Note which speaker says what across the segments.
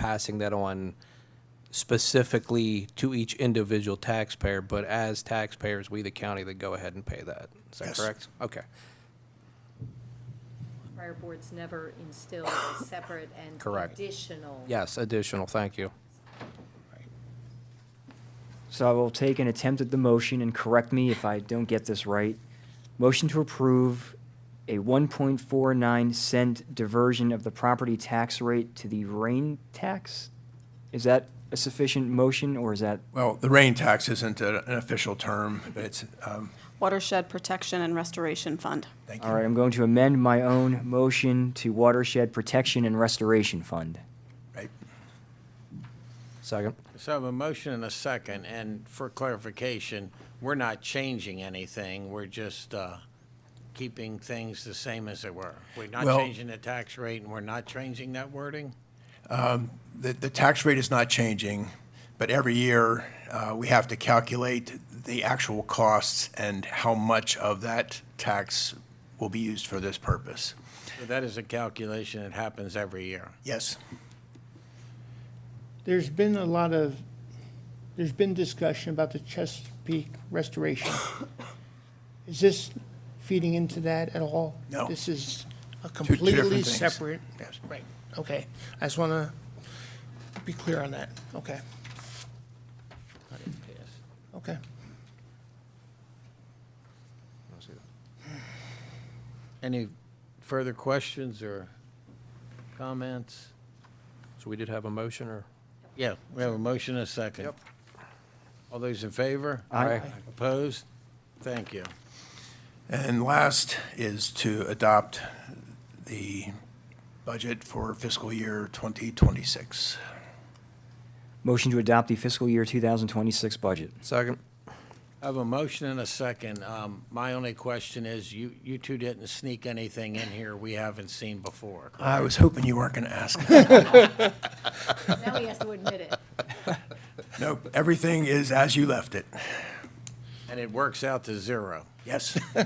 Speaker 1: passing that on specifically to each individual taxpayer, but as taxpayers, we, the county, that go ahead and pay that. Is that
Speaker 2: Yes.
Speaker 1: correct? Okay.
Speaker 3: Prior boards never instilled a separate and
Speaker 1: Correct.
Speaker 3: additional.
Speaker 1: Yes, additional, thank you.
Speaker 4: So I will take an attempt at the motion and correct me if I don't get this right. Motion to approve a 1.49 cent diversion of the property tax rate to the rain tax? Is that a sufficient motion or is that,
Speaker 2: Well, the rain tax isn't a- an official term, but it's, um,
Speaker 5: Watershed Protection and Restoration Fund.
Speaker 2: thank
Speaker 4: all right,
Speaker 2: you.
Speaker 4: I'm going to amend my own motion to Watershed Protection and Restoration Fund.
Speaker 2: Right.
Speaker 1: Second.
Speaker 6: So I have a motion and a second, and for clarification, we're not changing anything, we're just uh, keeping things the same as they were. We're not
Speaker 2: Well-
Speaker 6: changing the tax rate, and we're not changing that wording?
Speaker 2: The, the tax rate is not changing, but every year, uh, we have to calculate the actual costs and how much of that tax will be used for this purpose.
Speaker 6: So That is a calculation that happens every year.
Speaker 2: Yes,
Speaker 7: There's been a lot of, there's been discussion about the Chesapeake restoration. Is this feeding into that at all?
Speaker 2: No.
Speaker 7: This is
Speaker 2: two
Speaker 7: a
Speaker 2: different
Speaker 7: completely
Speaker 2: things.
Speaker 7: separate,
Speaker 2: yes.
Speaker 7: right, okay. I just want to be clear on that, okay, okay.
Speaker 6: Any further questions or comments?
Speaker 1: So we did have a motion, or?
Speaker 6: Yeah, we have a motion and a second.
Speaker 2: Yep.
Speaker 6: All those in favor?
Speaker 1: Aye.
Speaker 6: Opposed? Thank you.
Speaker 2: And last is to adopt the budget for fiscal year 2026.
Speaker 4: Motion to adopt the fiscal year 2026 budget.
Speaker 1: Second.
Speaker 6: I have a motion and a second. Um, My only question is, you, you two didn't sneak anything in here we haven't seen before.
Speaker 2: I was hoping you weren't going to ask.
Speaker 3: Now he has to admit it.
Speaker 2: Nope, everything is as you left it.
Speaker 6: And it works out to zero.
Speaker 2: Yes.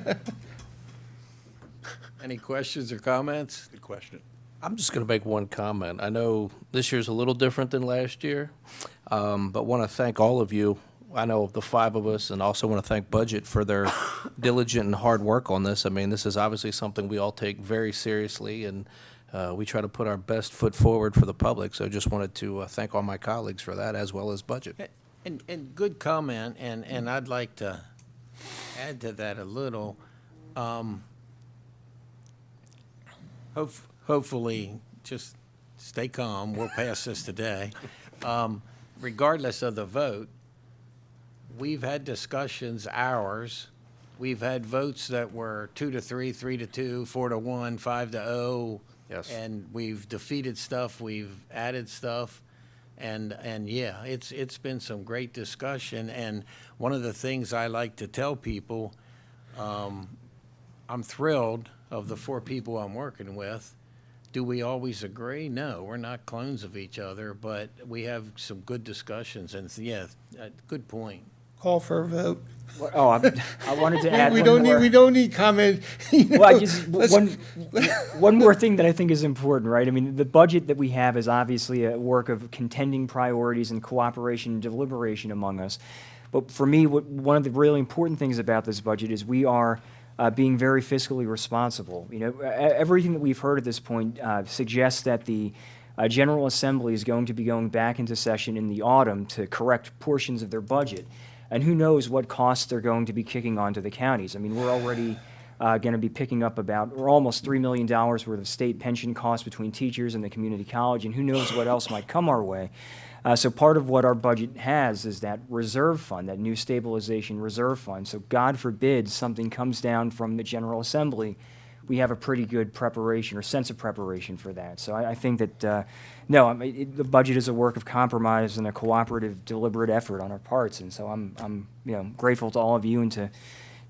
Speaker 6: Any questions or comments?
Speaker 2: Good question.
Speaker 1: I'm just going to make one comment. I know this year's a little different than last year, um, but want to thank all of you. I know the five of us, and also want to thank Budget for their diligent and hard work on this. I mean, this is obviously something we all take very seriously, and uh, we try to put our best foot forward for the public. So just wanted to uh, thank all my colleagues for that, as well as Budget.
Speaker 6: And, and good comment, and, and I'd like to add to that a little. Um, hope, hopefully, just stay calm, we'll pass this today. Um, regardless of the vote, we've had discussions, ours, we've had votes that were two to three, three to two, four to one, five to oh.
Speaker 1: Yes.
Speaker 6: And we've defeated stuff, we've added stuff, and, and yeah, it's, it's been some great discussion, and one of the things I like to tell people, um, I'm thrilled of the four people I'm working with. Do we always agree? No, we're not clones of each other, but we have some good discussions, and yeah, uh, good point.
Speaker 7: Call for a vote.
Speaker 4: Oh, I I wanted to add
Speaker 7: We
Speaker 4: one
Speaker 7: don't need,
Speaker 4: more.
Speaker 7: we don't need comment. you
Speaker 4: Well, I
Speaker 7: know,
Speaker 4: just,
Speaker 7: let's-
Speaker 4: one, one more thing that I think is important, right? I mean, the budget that we have is obviously a work of contending priorities and cooperation and deliberation among us. But for me, what, one of the really important things about this budget is we are uh, being very fiscally responsible. You know, e- everything that we've heard at this point uh, suggests that the uh, General Assembly is going to be going back into session in the autumn to correct portions of their budget. And who knows what costs they're going to be kicking onto the counties. I mean, we're already uh, going to be picking up about, or almost $3 million worth of state pension costs between teachers and the community college, and who knows what else might come our way. Uh, so part of what our budget has is that reserve fund, that new stabilization reserve fund. So God forbid something comes down from the General Assembly, we have a pretty good preparation or sense of preparation for that. So I, I think that, uh, no, I mean, it, the budget is a work of compromise and a cooperative, deliberate effort on our parts. And so I'm, I'm, you know, grateful to all of you and to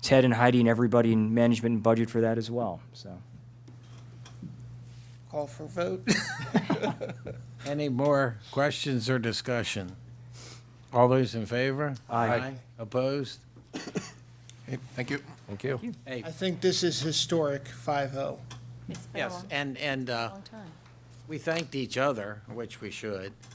Speaker 4: Ted and Heidi and everybody in management and budget for that as well. So
Speaker 7: Call for a vote.
Speaker 6: Any more questions or discussion? All those in favor?
Speaker 4: Aye.
Speaker 6: Opposed?
Speaker 2: Thank you.
Speaker 1: Thank you.
Speaker 6: Hey,
Speaker 7: I think this is historic, five oh.
Speaker 3: It's been a
Speaker 6: yes,
Speaker 3: long,
Speaker 6: and, and uh,
Speaker 3: long time.
Speaker 6: we thanked each other, which we should.